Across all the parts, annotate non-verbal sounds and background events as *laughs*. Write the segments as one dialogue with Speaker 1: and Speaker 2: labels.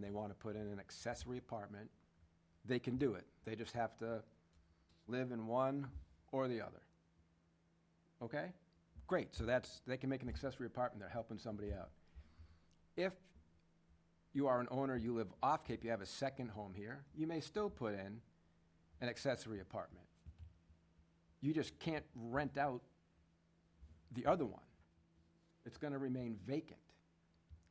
Speaker 1: they want to put in an accessory apartment, they can do it. They just have to live in one or the other. Okay? Great, so that's, they can make an accessory apartment, they're helping somebody out. If you are an owner, you live off Cape, you have a second home here, you may still put in an accessory apartment. You just can't rent out the other one. It's gonna remain vacant.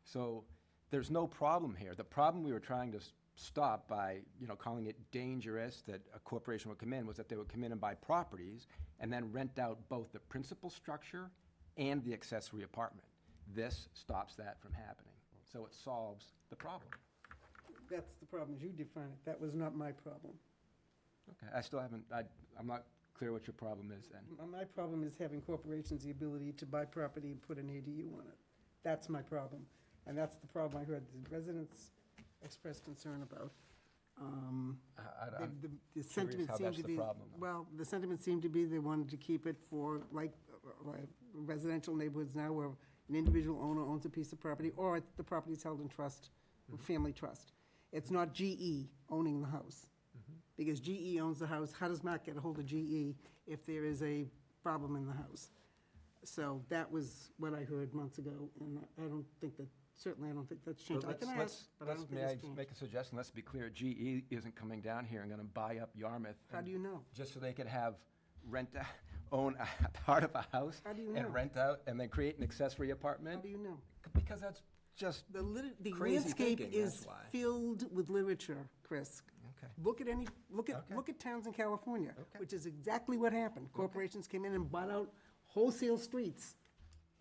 Speaker 1: So there's no problem here. The problem we were trying to s- stop by, you know, calling it dangerous that a corporation would come in was that they would come in and buy properties and then rent out both the principal structure and the accessory apartment. This stops that from happening. So it solves the problem.
Speaker 2: That's the problem, is you define it. That was not my problem.
Speaker 1: Okay, I still haven't, I, I'm not clear what your problem is then.
Speaker 2: M- My problem is having corporations the ability to buy property and put an ADU on it. That's my problem. And that's the problem I heard the residents express concern about. Um,
Speaker 1: I- I-
Speaker 2: the-
Speaker 1: I'm-
Speaker 2: The the sentiment
Speaker 1: how
Speaker 2: seemed
Speaker 1: that's
Speaker 2: to
Speaker 1: the
Speaker 2: be.
Speaker 1: problem, though.
Speaker 2: Well, the sentiment seemed to be they wanted to keep it for, like, uh, like residential neighborhoods now where an individual owner owns a piece of property, or the property is held in trust,
Speaker 1: Mm-hmm.
Speaker 2: family trust. It's not GE owning the house.
Speaker 1: Mm-hmm.
Speaker 2: Because GE owns the house, how does Mark get a hold of GE if there is a problem in the house? So that was what I heard months ago, and I don't think that, certainly I don't think that's
Speaker 1: Well,
Speaker 2: changed. I
Speaker 1: let's-
Speaker 2: can ask,
Speaker 1: let's-
Speaker 2: but I
Speaker 1: let's-
Speaker 2: don't think
Speaker 1: may
Speaker 2: it's changed.
Speaker 1: Make a suggestion, let's be clear, GE isn't coming down here and gonna buy up Yarmouth.
Speaker 2: How
Speaker 1: and-
Speaker 2: do you know?
Speaker 1: Just so they could have, rent, *laughs* a- own a *laughs* part of a house
Speaker 2: How do you know?
Speaker 1: and rent out, and then create an accessory
Speaker 2: How
Speaker 1: apartment?
Speaker 2: do you know?
Speaker 1: Because that's just,
Speaker 2: The lit, the
Speaker 1: Crazy
Speaker 2: landscape
Speaker 1: thinking, that's
Speaker 2: is
Speaker 1: why.
Speaker 2: filled with literature, Chris.
Speaker 1: okay,
Speaker 2: Look at any, look at,
Speaker 1: Okay.
Speaker 2: look at towns in California,
Speaker 1: Okay.
Speaker 2: which is exactly what happened. Corporations came in and bought out wholesale streets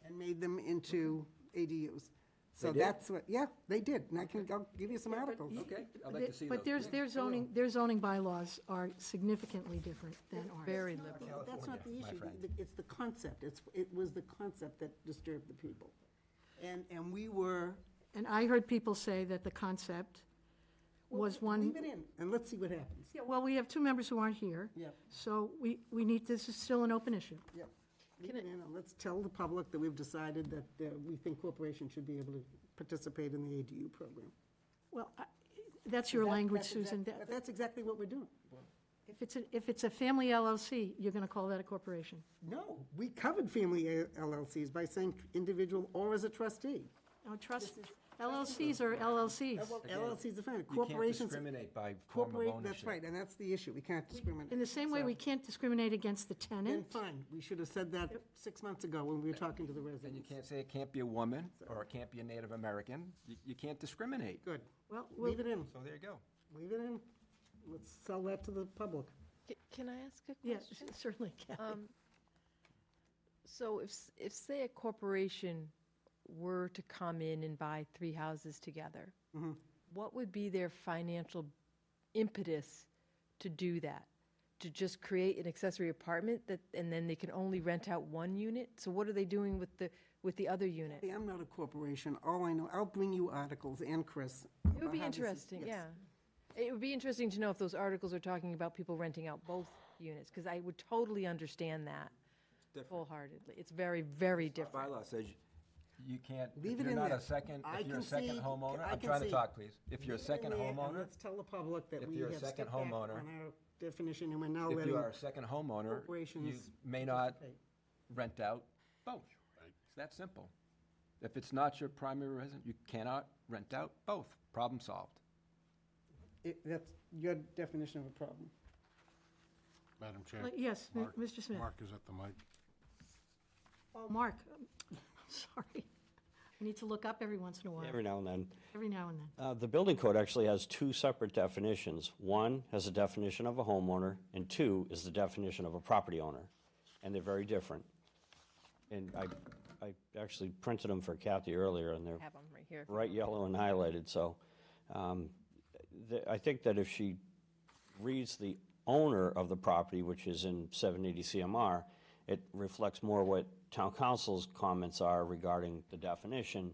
Speaker 2: and made them into ADUs. So
Speaker 1: did?
Speaker 2: that's what, yeah, they did, and I can, I'll give you some articles.
Speaker 1: okay, I'd like to see those.
Speaker 3: But there's, their zoning, their zoning bylaws are significantly different than ours.
Speaker 4: Very
Speaker 2: But
Speaker 4: liberal.
Speaker 2: That's not the
Speaker 1: California, my
Speaker 2: issue,
Speaker 1: friend.
Speaker 2: The- the- it's the concept, it's, it was the concept that disturbed the people. And, and we were,
Speaker 3: And I heard people say that the concept was one.
Speaker 2: leave it in, and let's see what happens.
Speaker 3: Yeah, well, we have two members who aren't here.
Speaker 2: Yep.
Speaker 3: So we, we need, this is still an open issue.
Speaker 2: Yep. Leave it in, and let's tell the public that we've decided that uh, we think corporations should be able to participate in the ADU program.
Speaker 3: Well, I- that's your language,
Speaker 2: That's exact-
Speaker 3: Susan.
Speaker 2: but
Speaker 3: That-
Speaker 2: That's exactly what we're doing.
Speaker 3: If it's, a- if it's a family LLC, you're going to call that a corporation.
Speaker 2: No, we covered family LLCs by saying individual or as a trustee.
Speaker 3: Now, trust, LLCs are LLCs.
Speaker 2: LLCs are fine,
Speaker 1: You can't
Speaker 2: corporations.
Speaker 1: discriminate by form of
Speaker 2: Corporate,
Speaker 1: ownership.
Speaker 2: that's right, and that's the issue, we can't discriminate.
Speaker 3: In the same way, we
Speaker 2: So,
Speaker 3: can't discriminate against the
Speaker 2: Then
Speaker 3: tenant.
Speaker 2: fine, we should have said that six months ago when we were talking to the
Speaker 1: And you
Speaker 2: residents.
Speaker 1: can't say it can't be a woman, or it can't be a Native American, you, you can't discriminate.
Speaker 2: Good,
Speaker 3: Well, we'll-
Speaker 2: leave it in,
Speaker 1: So there you go.
Speaker 2: leave it in, let's sell that to the public.
Speaker 4: C- Can I ask a
Speaker 3: yes, *laughs*
Speaker 4: question?
Speaker 3: certainly, Kathy.
Speaker 4: Um, So if, s- if, say, a corporation were to come in and buy three houses together, what would be their financial impetus to do that? To just create an accessory apartment that, and then they can only rent out one unit? So what are they doing with the, with the other unit?
Speaker 2: Hey, I'm not a corporation, all I know, I'll bring you articles and Chris.
Speaker 4: It would be interesting, yeah. It would be interesting to know if those articles are talking about people renting out both units, because I would totally understand that
Speaker 1: different.
Speaker 4: wholeheartedly. It's very, very different.
Speaker 1: Bylaw says you can't, if
Speaker 2: Leave it
Speaker 1: you're
Speaker 2: in
Speaker 1: not
Speaker 2: there.
Speaker 1: a second,
Speaker 2: I
Speaker 1: if you're a
Speaker 2: concede-
Speaker 1: second homeowner,
Speaker 2: I
Speaker 1: I'm trying to
Speaker 2: concede.
Speaker 1: talk, please. If you're a second homeowner,
Speaker 2: Let's tell the public that
Speaker 1: If
Speaker 2: we
Speaker 1: you're
Speaker 2: have
Speaker 1: a
Speaker 2: stepped
Speaker 1: second
Speaker 2: back on
Speaker 1: homeowner-
Speaker 2: our definition and we're now
Speaker 1: if you
Speaker 2: letting.
Speaker 1: are a second homeowner, you
Speaker 2: corporations
Speaker 1: may not
Speaker 2: participate.
Speaker 1: rent out both. It's that simple. If it's not your primary residence, you cannot rent out both. Problem solved.
Speaker 2: It- That's your definition of a problem.
Speaker 5: Madam Chair.
Speaker 3: Like, yes, m-
Speaker 5: Mark-
Speaker 3: Mr. Smith.
Speaker 5: Mark is at the mic.
Speaker 3: Oh, Mark, *laughs* um, I'm sorry. I need to look up every once in a while,
Speaker 6: Every now and then.
Speaker 3: every now and then.
Speaker 6: Uh, The building code actually has two separate definitions. One has a definition of a homeowner, and two is the definition of a property owner, and they're very different. And I, I actually printed them for Kathy earlier, and they're
Speaker 4: Have them right here.
Speaker 6: bright yellow and highlighted, so um, th- I think that if she reads the owner of the property, which is in 780 CMR, it reflects more what town council's comments are regarding the definition.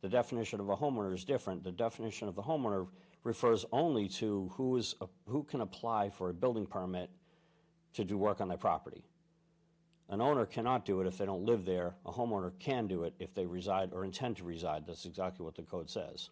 Speaker 6: The definition of a homeowner is different. The definition of the homeowner refers only to who is, who can apply for a building permit to do work on their property. An owner cannot do it if they don't live there. A homeowner can do it if they reside or intend to reside. That's exactly what the code says.